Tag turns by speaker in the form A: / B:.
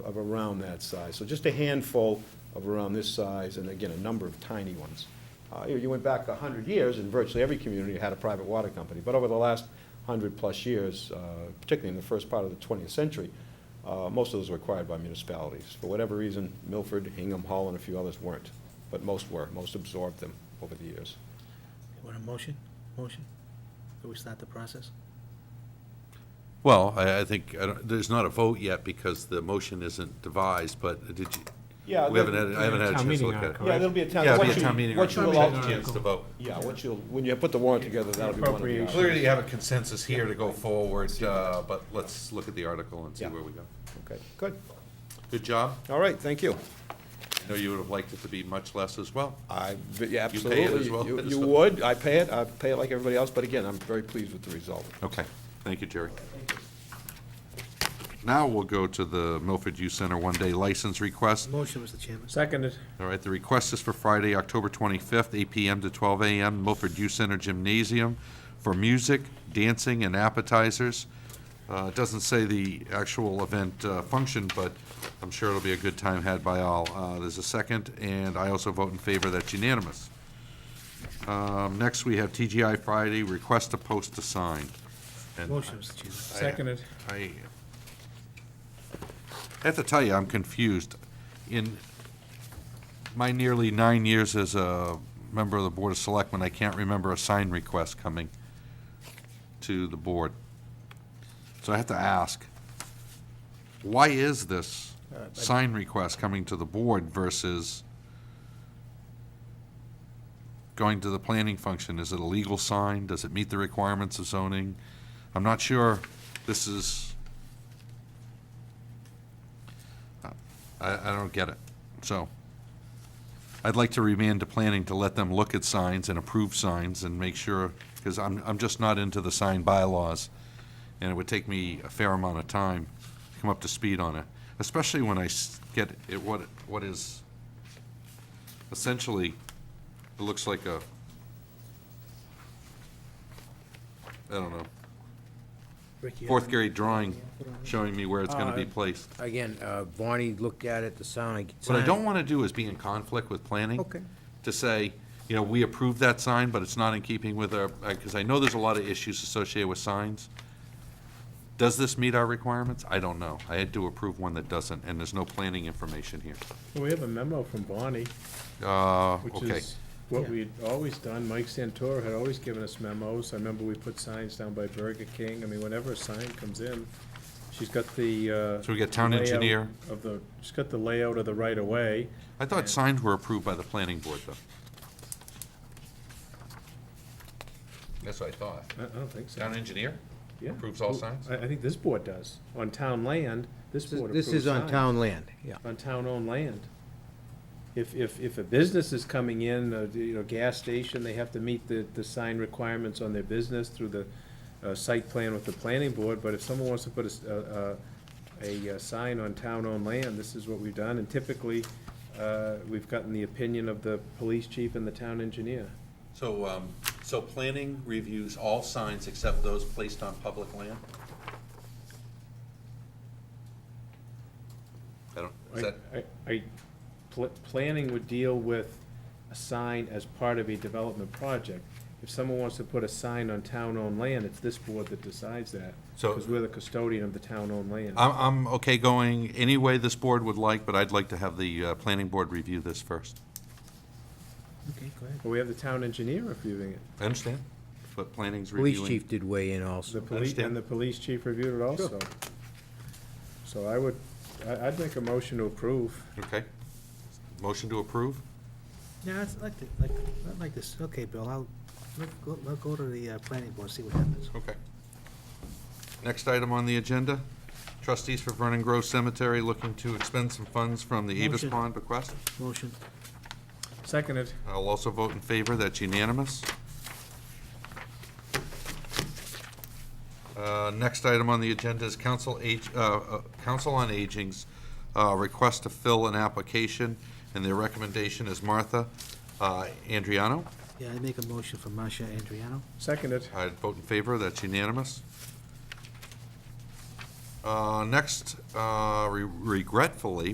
A: of around that size. So just a handful of around this size, and again, a number of tiny ones. Uh, you- You went back 100 years, and virtually every community had a private water company. But over the last 100-plus years, uh, particularly in the first part of the 20th century, uh, most of those were acquired by municipalities. For whatever reason, Milford, Hingham, Hall, and a few others weren't, but most were. Most absorbed them over the years.
B: Want a motion? Motion? Do we start the process?
C: Well, I, I think, I don't, there's not a vote yet because the motion isn't devised, but did you?
A: Yeah,
C: We haven't had, I haven't had a
D: Town
C: chance to
D: meeting
C: look at it.
D: article.
A: Yeah, there'll be a town.
C: Yeah,
A: what
C: it'll be a
A: you-
C: town meeting.
A: What you
C: article.
A: will
C: Chance
A: ultimately,
C: to vote.
A: yeah, what you'll, when you put the warrant together, that'll be one of the
D: Appropriation.
A: options.
C: Clearly you have a consensus here to go forward, uh, but let's look at the article and see
A: Yeah.
C: where we go.
A: Okay, good.
C: Good job.
A: All right, thank you.
C: I know you would have liked it to be much less as well.
A: I, but yeah,
C: You pay it as
A: absolutely.
C: well,
A: You- You
C: so-
A: would, I pay it, I pay it like everybody else, but again, I'm very pleased with the result.
C: Okay, thank you, Jerry. Now we'll go to the Milford Youth Center one-day license request.
B: Motion, Mr. Chairman.
D: Seconded.
C: All right, the request is for Friday, October 25th, 8 PM to 12 AM, Milford Youth Center Gymnasium for music, dancing, and appetizers. Uh, It doesn't say the actual event uh, function, but I'm sure it'll be a good time had by all. Uh, There's a second, and I also vote in favor, that's unanimous. Um, Next, we have TGI Friday, request to post a sign. And
B: Motion, Mr. Chairman.
C: I- uh,
D: Seconded.
C: I I have to tell you, I'm confused. In my nearly nine years as a member of the Board of Selectmen, I can't remember a sign request coming to the board. So I have to ask, why is this sign request coming to the board versus going to the planning function? Is it a legal sign? Does it meet the requirements of zoning? I'm not sure this is, I, I don't get it. So I'd like to remand to planning to let them look at signs and approve signs and make sure, because I'm, I'm just not into the sign bylaws. And it would take me a fair amount of time to come up to speed on it, especially when I s- get it, what, what is essentially, it looks like a, I don't know,
B: Ricky,
C: fourth grade drawing showing me where it's gonna be
E: Uh,
C: placed.
E: Again, uh, Barney looked at it, the sound.
C: What I don't wanna do is be in conflict with planning.
E: Okay.
C: To say, you know, we approve that sign, but it's not in keeping with our, because I know there's a lot of issues associated with signs. Does this meet our requirements? I don't know. I had to approve one that doesn't, and there's no planning information here.
D: We have a memo from Bonnie,
C: Uh,
D: which
C: okay.
D: is what we had always done. Mike Santoro had always given us memos. I remember we put signs down by Burger King. I mean, whenever a sign comes in, she's got the, uh.
C: So we got town
D: layout
C: engineer.
D: Of the, she's got the layout of the right of way.
C: I thought signs were approved by the planning board, though. That's what I thought.
D: I, I don't think so.
C: engineer?
D: Yeah.
C: approves all signs?
D: I, I think this board does. On town land, this
E: This is-
D: board approves
E: This is on
D: signs.
E: town land, yeah.
D: on town-owned land. If, if, if a business is coming in, uh, you know, gas station, they have to meet the, the sign requirements on their business through the uh, site plan with the planning board, but if someone wants to put a s- a, a, a uh, sign on town-owned land, this is what we've done, and typically, uh, we've gotten the opinion of the police chief and the town engineer.
C: So, um, so planning reviews all signs except those placed on public land? I don't, is that,
D: I- I, I- pl- planning would deal with a sign as part of a development project. If someone wants to put a sign on town-owned land, it's this board that decides that.
C: So- Um,
D: Because we're the custodian of the town-owned land.
C: I'm, I'm okay going any way this board would like, but I'd like to have the, uh, planning board review this first.
B: Okay, go ahead.
D: But we have the town engineer reviewing it.
C: I understand, but planning's reviewing.
E: Police chief did weigh in also.
D: The police, and
C: understand.
D: the police chief reviewed it also. So I would, I, I'd make a motion to approve.
C: Okay. Motion to approve?
B: No, it's like, the- like, not like this. Okay, Bill, I'll, let- go- I'll go to the uh, planning board, see what happens.
C: Okay. Next item on the agenda, trustees for Vernon Grove Cemetery looking to expend some funds from the Avis
B: Motion.
C: Pond bequest.
B: Motion.
D: Seconded.
C: I'll also vote in favor, that's unanimous. Uh, Next item on the agenda is Council Age, uh, uh, Council on Aging's uh, request to fill an application, and their recommendation is Martha uh, Andriano.
B: Yeah, I make a motion for Marcia Andriano.
D: Seconded.
C: I'd vote in favor, that's unanimous. Uh, Next, uh, re- regretfully,